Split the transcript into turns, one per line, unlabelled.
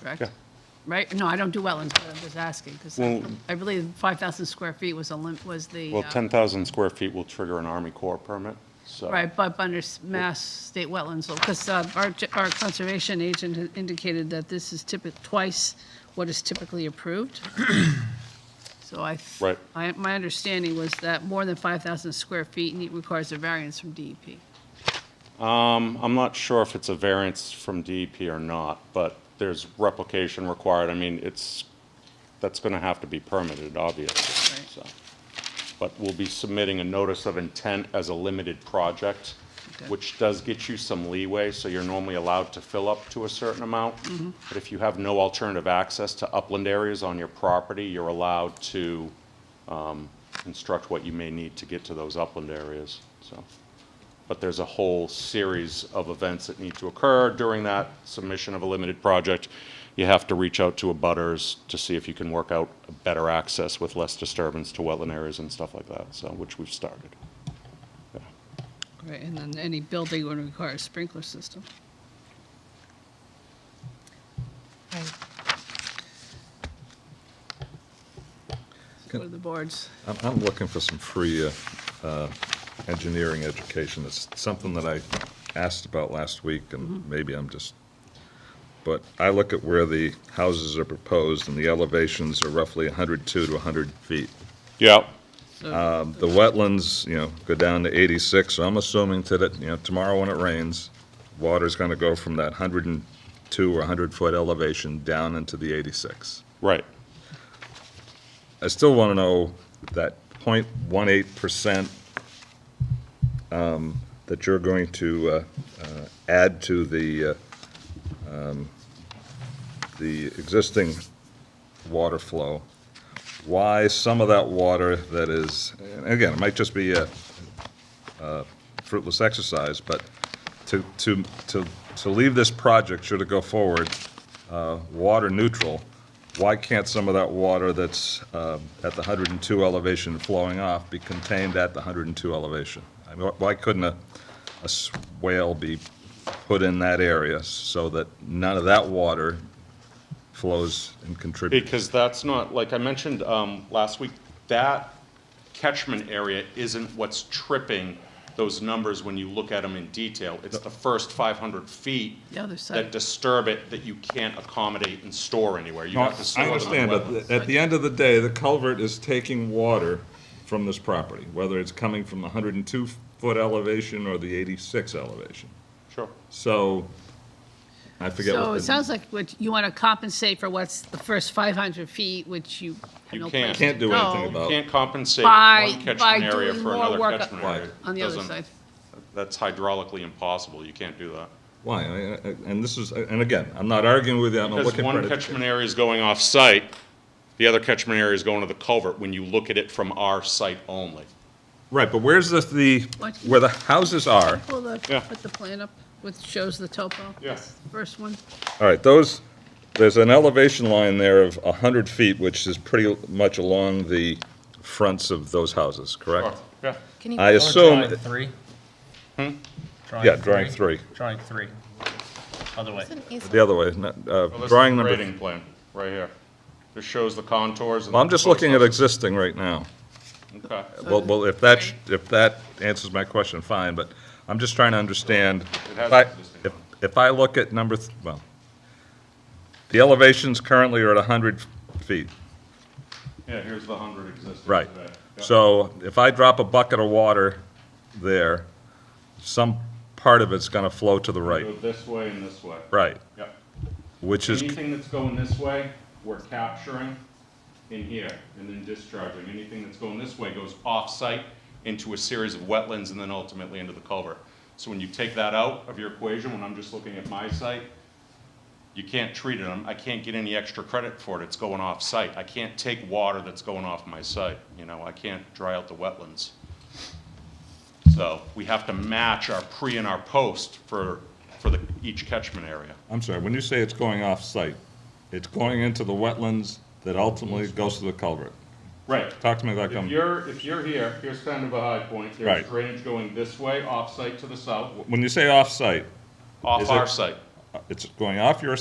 correct?
Yeah.
Right? No, I don't do wetlands, but I'm just asking, because
Well-
I believe 5,000 square feet was a lim, was the.
Well,
uh,
10,000 square feet will trigger an Army Corps permit, so.
Right, but under s- mass state wetlands, because our, ge- our conservation agent had indicated that this is typical, twice what is typically approved. So I. th-
Right.
I, my understanding was that more than 5,000 square feet need- requires a variance from E DEP.
Um, I'm not sure if it's a variance from DEP or not, but there's replication required. I mean, it's, that's going to have to be permitted, obviously,
Right.
so. But we'll be submitting a notice of intent as a limited project,
Okay.
which does get you some leeway, so you're normally allowed to fill up to a certain amount.
Mm-hmm.
But if you have no alternative access to upland areas on your property, you're allowed to um, construct what you may need to get to those upland areas, so. But there's a whole series of events that need to occur during that submission of a limited project. You have to reach out to a butters to see if you can work out a better access with less disturbance to wetland areas and stuff like that, so, which we've started.
Right, and then any building would require a sprinkler system.
Good.
What are the boards?
I'm, I'm looking for some free uh, uh, engineering education. It's something that I asked about last week, and maybe I'm just, but I look at where the houses are proposed, and the elevations are roughly 102 to 100 feet.
Yeah,
So
Um, The wetlands, you know, go down to 86, so I'm assuming that, you know, tomorrow when it rains, water's going to go from that 102 or 100-foot elevation down into the 86.
right.
I still want to know that 0.18 percent um, that you're going to uh, uh, add to the, uh, um, the existing water flow, why some of that water that is, and again, it might just be a a fruitless exercise, but to, to, to, to leave this project, should it go forward, uh, water neutral, why can't some of that water that's um, at the 102 elevation flowing off be contained at the 102 elevation? I mean, why couldn't a, a swale be put in that area so that none of that water flows and contributes?
Because that's not, like I mentioned um, last week, that catchment area isn't what's tripping those numbers when you look at them in detail. It's the first 500 feet
the other
that
side,
disturb it that you can't accommodate and store anywhere. You
No,
have to store
I
them on
understand,
wetlands.
but at the end of the day, the culvert is taking water from this property, whether it's coming from the 102-foot elevation or the 86 elevation.
Sure.
So, I forget
so
what
it
the,
sounds like what, you want to compensate for what's the first 500 feet, which you have
You
no place
can't.
can't
to
do anything
go
about it.
Can't compensate
By-
one
by
catchment area
doing
for
more
another
work
catchment
Right.
area.
on the other
Doesn't-
side.
That's hydraulically impossible. You can't do that.
Why, I- I- and this is, and again, I'm not arguing with you, I'm not
Because
looking for
one
it.
catchment area is going off-site, the other catchment area is going to the culvert when you look at it from our site only.
Right, but where's the, the,
What?
where the houses are,
Pull the,
Yeah.
put the plan up, which shows the topo.
Yeah.
First one,
all right, those, there's an elevation line there of 100 feet, which is pretty much along the fronts of those houses, correct?
Yeah.
Can you
I
put-
assume,
Drawing three?
Yeah, drawing three.
Drawing three. Other way.
It's an easel.
the other way, not, uh, drawing number
Grading plan, right here. This shows the contours. and
Well, I'm just
the
looking at
photos.
existing right now.
Okay.
Well, well, if that, if that answers my question, fine, but I'm just trying to understand.
It has
If I-
existing.
if- If I look at number, th- well, the elevations currently are at 100 feet,
Yeah, here's the hundred existing today.
right?
Yeah.
So if I drop a bucket of water there, some part of it's going to flow to the
Go
right,
this way and this way.
right,
Yeah.
which is,
Anything that's going this way, we're capturing in here and then discharging. Anything that's going this way goes off-site into a series of wetlands and then ultimately into the culvert. So when you take that out of your equation, when I'm just looking at my site, you can't treat it, I'm- I can't get any extra credit for it, it's going off-site. I can't take water that's going off my site, you know, I can't dry out the wetlands. So we have to match our pre and our post for, for the, each catchment area.
I'm sorry, when you say it's going off-site, it's going into the wetlands that ultimately goes to the culvert.
Right.
Talk to me like
If
I'm,
you're, if you're here, here's kind of a high point, there's
Right.
drainage going this way, off-site to the south,
when you say off-site,
off
Is it-
our site.
it's going off your